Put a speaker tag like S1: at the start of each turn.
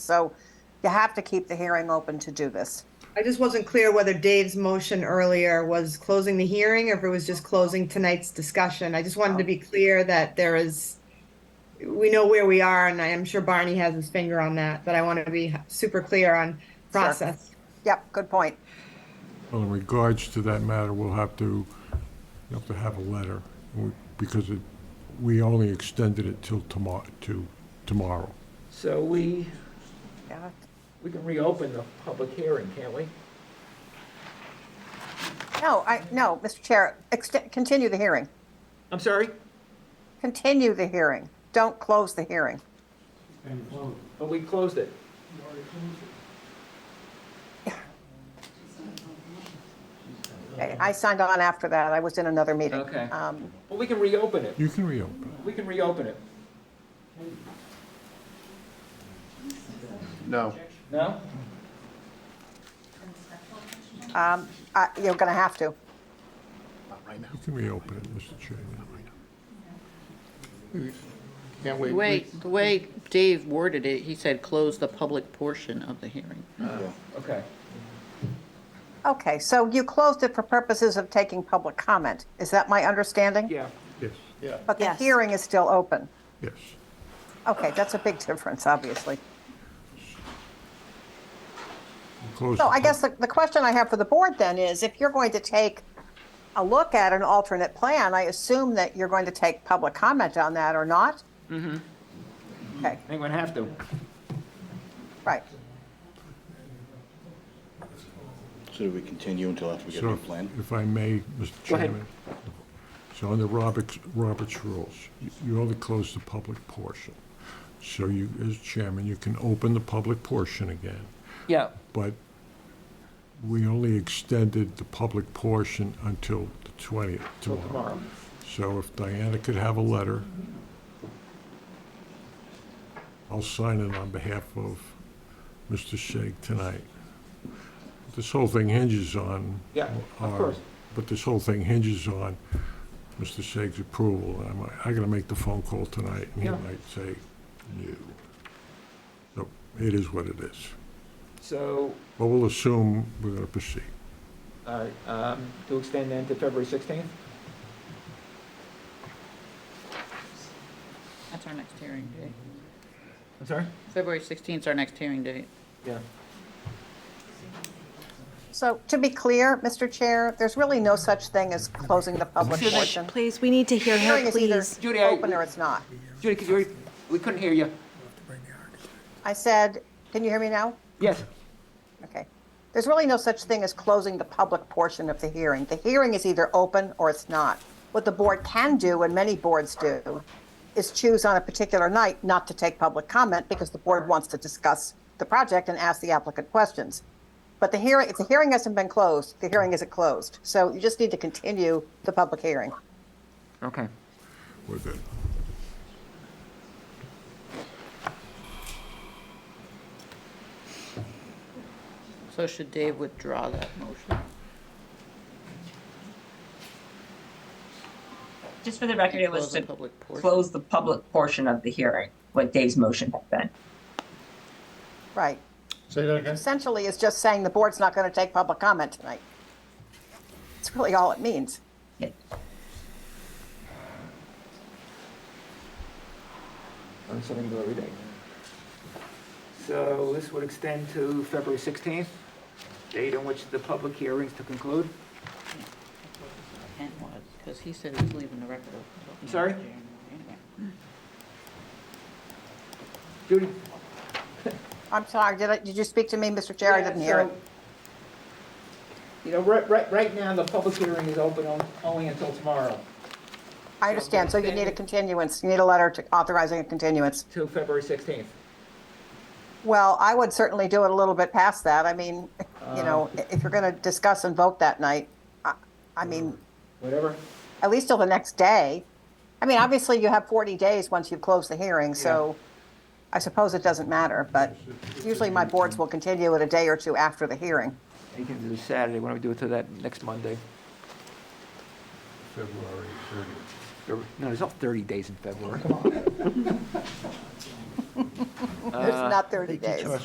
S1: So you have to keep the hearing open to do this.
S2: I just wasn't clear whether Dave's motion earlier was closing the hearing or if it was just closing tonight's discussion. I just wanted to be clear that there is, we know where we are, and I am sure Barney has his finger on that, but I want to be super clear on process.
S1: Yep, good point.
S3: Well, in regards to that matter, we'll have to, you have to have a letter, we- because it, we only extended it till tomorrow, to tomorrow.
S4: So we,
S1: Yeah.
S4: we can reopen the public hearing, can't we?
S1: No, I, no, Mr. Chair, ext- continue the hearing.
S4: I'm sorry?
S1: Continue the hearing. Don't close the hearing.
S5: And close.
S4: Oh, we closed it.
S5: You already closed it.
S1: Okay, I signed on after that. I was in another meeting.
S4: Okay.
S1: Um,
S4: Well, we can reopen it.
S3: You can reopen.
S4: We can reopen it.
S6: No.
S4: No?
S1: um, I- You're going to have to.
S6: Not right now.
S3: You can reopen it, Mr. Chairman.
S6: Can't wait.
S7: Wait, the way Dave worded it, he said, "Close the public portion of the hearing."
S4: Okay.
S1: Okay, so you closed it for purposes of taking public comment. Is that my understanding?
S4: Yeah.
S3: Yes,
S6: Yeah.
S1: But the
S7: Yes.
S1: hearing is still open.
S3: yes.
S1: Okay, that's a big difference, obviously.
S3: We'll close
S1: So
S3: the
S1: I
S3: pub-
S1: guess the, the question I have for the board then is, if you're going to take a look at an alternate plan, I assume that you're going to take public comment on that or not? Mm-hmm. Okay,
S4: I think we'd have to.
S1: right.
S6: So do we continue until after we get a
S3: So,
S6: new plan?
S3: if I may, Mr.
S4: Go ahead.
S3: Chairman. So under Robert's, Robert's rules, you- you only close the public portion. So you, as chairman, you can open the public portion again.
S4: Yeah.
S3: but we only extended the public portion until the 20th
S4: Till
S3: tomorrow.
S4: tomorrow.
S3: So if Diana could have a letter, I'll sign it on behalf of Mr. Shake tonight. This whole thing hinges on.
S4: Yeah, of
S3: our-
S4: course.
S3: But this whole thing hinges on Mr. Shake's approval. I'm, I gotta make the phone call tonight, and he
S4: Yeah.
S3: might say, no. So it is what it is.
S4: So,
S3: But we'll assume we're going to proceed.
S4: all right, um, to extend then to February 16th?
S7: That's our next hearing date.
S4: I'm sorry?
S7: February 16th is our next hearing date.
S4: Yeah.
S1: So to be clear, Mr. Chair, there's really no such thing as closing the public portion.
S8: Please, we need to hear
S1: Hearing
S8: her,
S1: is either
S8: please.
S4: Judy, I-
S1: open or it's not.
S4: Judy, could you, re- we couldn't hear you.
S1: I said, can you hear me now?
S4: Yes.
S1: Okay. There's really no such thing as closing the public portion of the hearing. The hearing is either open or it's not. What the board can do, and many boards do, is choose on a particular night not to take public comment because the board wants to discuss the project and ask the applicant questions. But the hearing, if the hearing hasn't been closed, the hearing isn't closed. So you just need to continue the public hearing.
S4: Okay.
S3: We're good.
S7: So should Dave withdraw that motion?
S9: Just for the record, it was
S7: Close the
S9: to
S7: public portion.
S9: close the public portion of the hearing, what Dave's motion had been.
S1: Right.
S6: Say that again?
S1: Essentially, it's just saying the board's not going to take public comment tonight. That's really all it means.
S9: Yeah.
S4: Learn something new every day. So this would extend to February 16th, date on which the public hearings to conclude.
S7: Intent was, because he said he was leaving the record open.
S4: I'm sorry?
S7: Anyway.
S4: Judy?
S1: I'm sorry, did I, did you speak to me, Mr. Chair? I didn't hear it.
S4: So, You know, right, right, right now, the public hearing is open on- only until tomorrow,
S1: I understand, so you need a continuance, you need a letter to authorizing a continuance.
S4: till February 16th.
S1: Well, I would certainly do it a little bit past that, I mean, you know, i- if you're gonna discuss and vote that night, I, I mean,
S4: Whatever.
S1: at least till the next day. I mean, obviously, you have 40 days once you've closed the hearing, so I suppose it doesn't matter, but usually my boards will continue it a day or two after the hearing.
S4: You can do Saturday, why don't we do it till that next Monday?
S3: February 30th.
S4: Or- No, there's not 30 days in February.
S1: It's not 30 days.